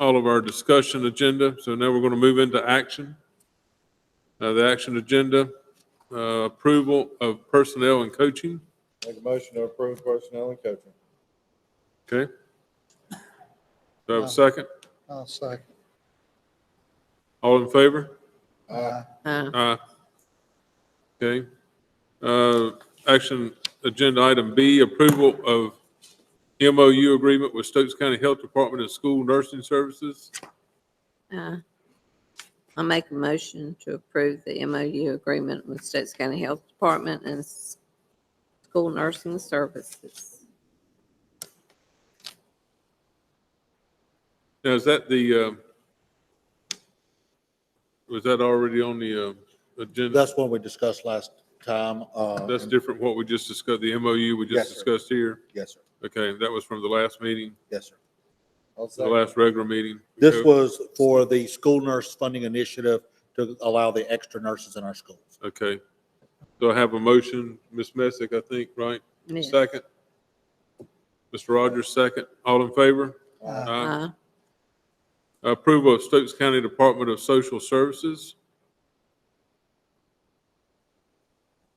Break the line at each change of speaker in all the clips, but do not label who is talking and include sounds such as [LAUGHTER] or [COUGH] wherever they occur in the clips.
all of our discussion agenda, so now we're going to move into action. Uh, The action agenda, uh, approval of personnel and coaching,
Make a motion to approve personnel and coaching.
okay? Do I have a second?
Uh, I'll second.
All in favor?
Aye.
Uh,
Aye. Okay. Uh, Action agenda item B, approval of MOU agreement with Stokes County Health Department and School Nursing Services.
uh, I make a motion to approve the MOU agreement with States County Health Department and s- School Nursing Services.
Now, is that the, uh, was that already on the uh, agenda?
That's one we discussed last time. uh,
That's
and-
different what we just discussed, the MOU we just
Yes, sir.
discussed here.
Yes, sir.
Okay, that was from the last meeting,
Yes, sir.
I'll
the
second.
last regular meeting.
This
Okay.
was for the school nurse funding initiative to allow the extra nurses in our schools.
Okay. So I have a motion, Ms. Messick, I think, right?
Yes.
Second. Mr. Rogers, second. All in favor?
Aye.
Aye.
Uh,
Approval of Stokes County Department of Social Services.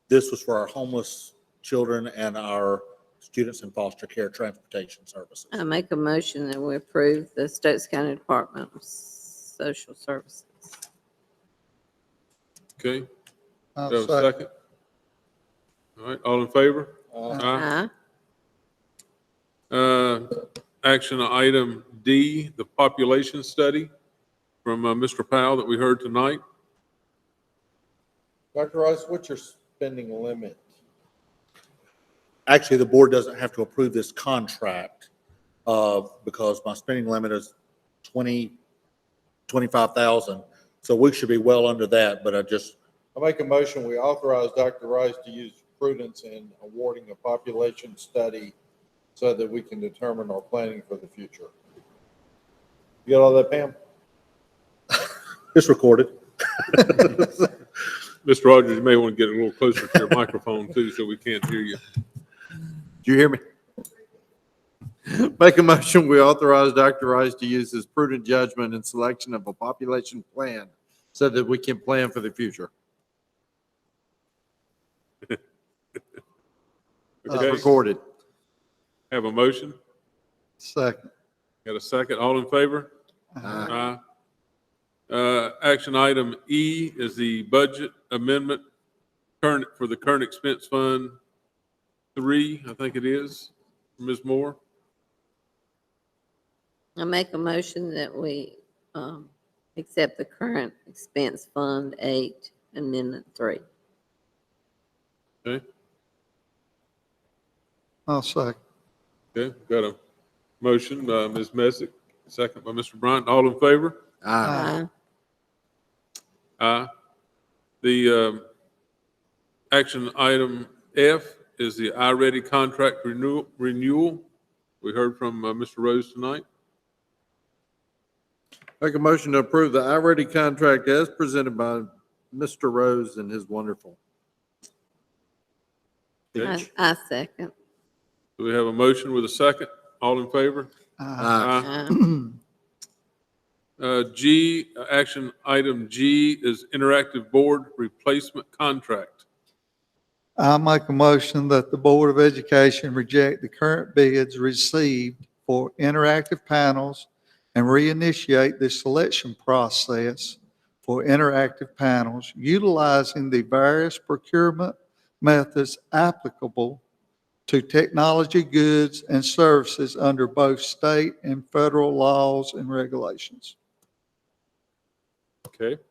This was for our homeless children and our students in foster care transportation services.
I make a motion that we approve the States County Department of Social Services.
Okay, do I
I'll
have a
second.
second? All right, all in favor?
Aye.
Aye.
Aye.
Uh, Action item D, the population study from uh, Mr. Powell that we heard tonight.
Dr. Rice, what's your spending limit?
Actually, the board doesn't have to approve this contract uh, because my spending limit is 20, 25,000. So we should be well under that, but I just
I make a motion, we authorize Dr. Rice to use prudence in awarding a population study so that we can determine our planning for the future. You got all that, Pam?
It's recorded.
Mr. Rogers, you may want to get a little closer to your microphone too, so we can't hear you.
Do you hear me? Make a motion, we authorize Dr. Rice to use his prudent judgment in selection of a population plan so that we can plan for the future. Uh,
Okay,
Recorded.
have a motion?
Second.
Got a second? All in favor?
Aye.
Aye. Uh, Action item E is the budget amendment current, for the current expense fund three, I think it is, Ms. Moore.
I make a motion that we um, accept the current expense fund eight, amendment three.
Okay,
I'll second.
okay, got a motion, uh, Ms. Messick, second by Mr. Bryant. All in favor?
Aye.
Aye. The um, action item F is the I-ready contract renewal, renewal. We heard from uh, Mr. Rose tonight.
Make a motion to approve the I-ready contract as presented by Mr. Rose and his wonderful.
Okay.
I I second.
Do we have a motion with a second? All in favor?
Aye.
Aye.
Uh, G, uh, action item G is interactive board replacement contract.
I make a motion that the Board of Education reject the current bids received for interactive panels and reinitiate the selection process for interactive panels utilizing the various procurement methods applicable to technology goods and services under both state and federal laws and regulations.
[LAUGHS] Okay.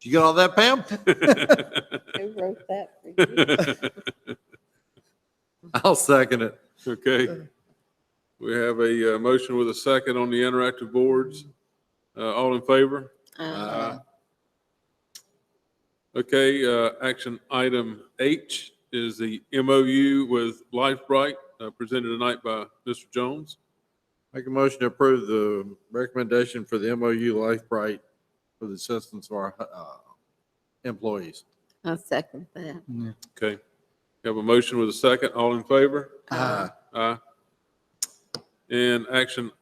You got all that, Pam?
Who wrote that for you?
I'll second it.
Okay. We have a uh, motion with a second on the interactive boards. Uh, All in favor?
Aye.
Okay, uh, action item H is the MOU with LifeBright uh, presented tonight by Mr. Jones.
Make a motion to approve the recommendation for the MOU LifeBright for the assistance of our uh, employees.
I second that.
Okay. We Have a motion with a second. All in favor?
Aye.
Aye. And action